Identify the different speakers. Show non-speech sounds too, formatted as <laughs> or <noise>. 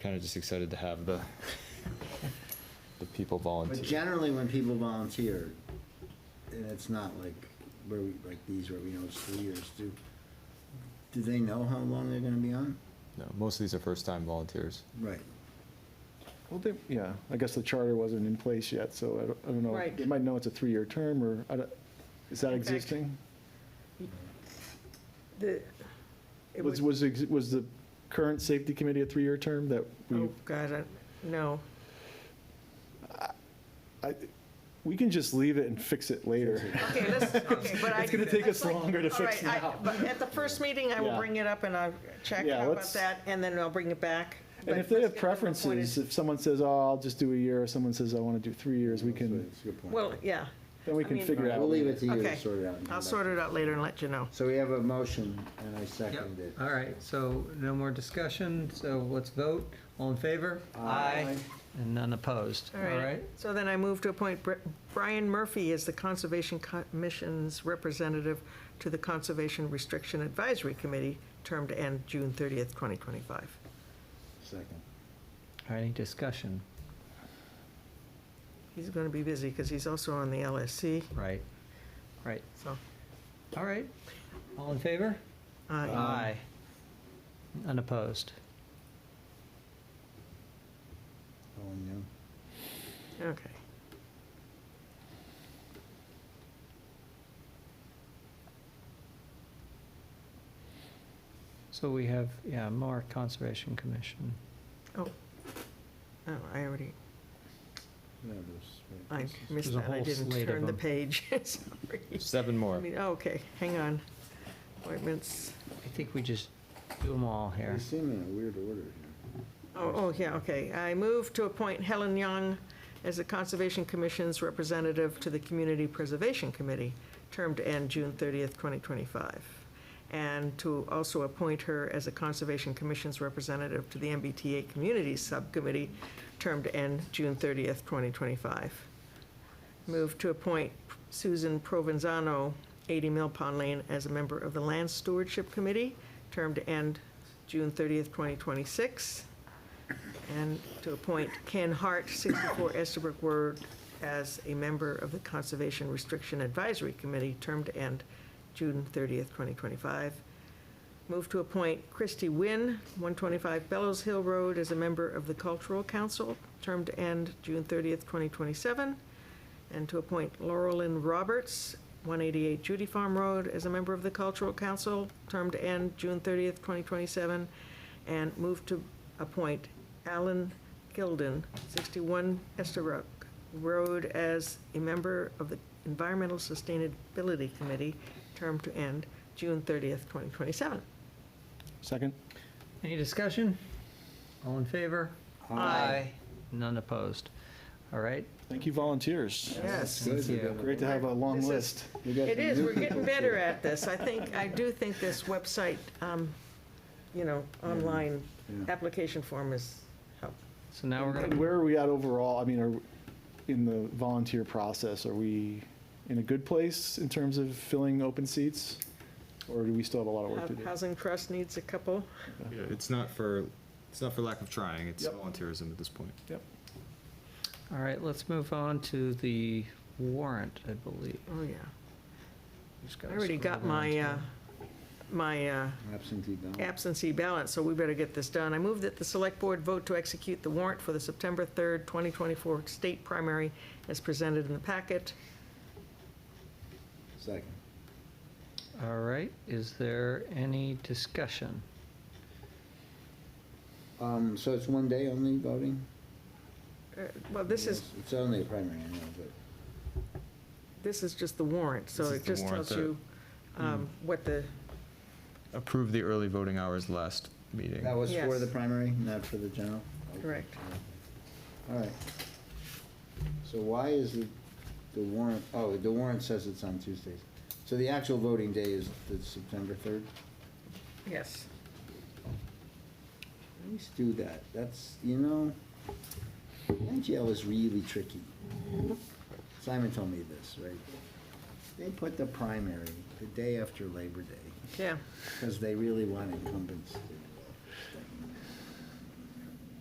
Speaker 1: kind of just excited to have the, the people
Speaker 2: But
Speaker 1: volunteer.
Speaker 2: generally, when people volunteer, and it's not like where we, like these where we know it's three years, do, do they know how long they're gonna be on?
Speaker 1: No, most of these are first-time volunteers.
Speaker 2: Right.
Speaker 3: Well, they, yeah, I guess the charter wasn't in place yet, so I don't, I don't know.
Speaker 4: Right.
Speaker 3: They might know it's a three-year term, or, I don't- is that
Speaker 4: In fact,
Speaker 3: existing?
Speaker 4: The, it
Speaker 3: Was, was,
Speaker 4: was,
Speaker 3: ex- was the current safety committee a three-year term that we,
Speaker 4: oh, God, I- no.
Speaker 3: I, we can just leave it and fix it later.
Speaker 4: Okay, let's, okay, but I.
Speaker 3: It's gonna take us
Speaker 4: that's like-
Speaker 3: longer to
Speaker 4: all
Speaker 3: fix
Speaker 4: right, I-
Speaker 3: now.
Speaker 4: But at the first meeting, I will
Speaker 3: Yeah.
Speaker 4: bring it up and I'll check
Speaker 3: Yeah,
Speaker 4: out about
Speaker 3: let's-
Speaker 4: that, and then I'll bring it back.
Speaker 3: And
Speaker 4: But
Speaker 3: if they
Speaker 4: let's
Speaker 3: have
Speaker 4: get them
Speaker 3: preferences,
Speaker 4: appointed.
Speaker 3: if someone says, oh, I'll just do a year, or someone says, I want to do three years, we can,
Speaker 2: That's a good point.
Speaker 4: Well, yeah,
Speaker 3: then we
Speaker 4: I
Speaker 3: can
Speaker 4: mean-
Speaker 3: figure out.
Speaker 2: We'll leave it to you to
Speaker 4: Okay.
Speaker 2: sort it out. and come
Speaker 4: I'll
Speaker 2: back.
Speaker 4: sort it out later and let you know.
Speaker 2: So we have a motion, and I
Speaker 5: Yep,
Speaker 2: second it.
Speaker 5: all right, so no more discussion, so let's vote. All in favor?
Speaker 2: Aye.
Speaker 5: And none opposed, all right?
Speaker 4: So then I move to appoint Bri- Brian Murphy as the Conservation Commission's representative to the Conservation Restriction Advisory Committee, term to end June 30th, 2025.
Speaker 2: Second.
Speaker 5: All right, any discussion?
Speaker 4: He's going to be busy because he's also on the LSC,
Speaker 5: Right, right,
Speaker 4: so. uh,
Speaker 5: all right. All in favor?
Speaker 4: aye.
Speaker 3: Uh,
Speaker 5: Aye. Unopposed.
Speaker 2: Oh, no.
Speaker 4: Okay.
Speaker 5: So we have, yeah, more Conservation Commission.
Speaker 4: Oh, I already,
Speaker 2: Yeah, there's-
Speaker 4: I
Speaker 5: There's
Speaker 4: missed
Speaker 5: a
Speaker 4: that. I
Speaker 5: whole
Speaker 4: didn't
Speaker 5: slate of
Speaker 4: turn the
Speaker 5: them.
Speaker 4: page. <laughs> Sorry.
Speaker 1: Seven
Speaker 4: I
Speaker 1: more.
Speaker 4: mean, oh, okay, hang on. Appointments.
Speaker 5: I think we just do them all here.
Speaker 2: They seem in a weird order here.
Speaker 4: Oh, oh, yeah, okay. I move to appoint Helen Young as the Conservation Commission's representative to the Community Preservation Committee, term to end June 30th, 2025. And to also appoint her as the Conservation Commission's representative to the MBTA Communities Subcommittee, term to end June 30th, 2025. Move to appoint Susan Provenzano, 80 Mill Pond Lane, as a member of the Land Stewardship Committee, term to end June 30th, 2026. And to appoint Ken Hart, 64 Estabrook Road, as a member of the Conservation Restriction Advisory Committee, term to end June 30th, 2025. Move to appoint Christy Wynn, 125 Bellows Hill Road, as a member of the Cultural Council, term to end June 30th, 2027. And to appoint Laurelyn Roberts, 188 Judy Farm Road, as a member of the Cultural Council, term to end June 30th, 2027. And move to appoint Alan Gilden, 61 Estabrook Road, as a member of the Environmental Sustainability Committee, term to end June 30th, 2027.
Speaker 3: Second?
Speaker 5: Any discussion? All in favor? Aye. None opposed. All right,
Speaker 3: Thank you, volunteers.
Speaker 4: Yes.
Speaker 2: Good,
Speaker 5: Thank
Speaker 2: we
Speaker 5: you.
Speaker 2: got a-
Speaker 3: Great to have a long
Speaker 4: This is-
Speaker 3: list.
Speaker 2: we got
Speaker 4: It
Speaker 2: some
Speaker 4: is,
Speaker 2: new
Speaker 4: we're getting <laughs>
Speaker 2: people,
Speaker 4: better
Speaker 2: too.
Speaker 4: at this. I think, I do think this website, um, you know, online
Speaker 2: Yeah.
Speaker 4: application form is help.
Speaker 5: so now we're
Speaker 3: And
Speaker 5: gonna,
Speaker 3: where are we at overall? I mean, are, in the volunteer process, are we in a good place in terms of filling open seats? Or do we still have a lot of work to do?
Speaker 4: Housing Trust needs a couple.
Speaker 1: Yeah, It's not for, it's not for lack of trying, it's
Speaker 3: Yep.
Speaker 1: volunteerism at this point.
Speaker 3: Yep.
Speaker 5: all right, let's move on to the warrant, I believe.
Speaker 4: Oh, yeah.
Speaker 5: Just
Speaker 4: I
Speaker 5: gotta
Speaker 4: already
Speaker 5: scroll
Speaker 4: got
Speaker 5: down
Speaker 4: my,
Speaker 5: to-
Speaker 4: uh, my uh,
Speaker 2: Absentee ballot.
Speaker 4: absentee ballot, so we better get this done. I move that the Select Board vote to execute the warrant for the September 3rd, 2024 state primary as presented in the packet.
Speaker 2: Second.
Speaker 5: All right, is there any discussion?
Speaker 2: Um, so it's one day only voting?
Speaker 4: Uh, Well, this is,
Speaker 2: Yes, It's only a primary, I know, but.
Speaker 4: this is just the warrant, so
Speaker 1: This is
Speaker 4: it
Speaker 1: the
Speaker 4: just
Speaker 1: warrant
Speaker 4: tells you um, what the,
Speaker 1: Approved the early voting hours last meeting.
Speaker 2: That was for
Speaker 4: Yes.
Speaker 2: the primary, not for the general? Okay.
Speaker 4: Correct.
Speaker 2: All right. So why is the, the warrant, oh, the warrant says it's on Tuesdays. So the actual voting day is the September 3rd?
Speaker 4: yes.
Speaker 2: At least do that. That's, you know, NGL is really tricky. Simon told me this, right? They put the primary the day after Labor Day
Speaker 4: Yeah,
Speaker 2: because they really want incumbents to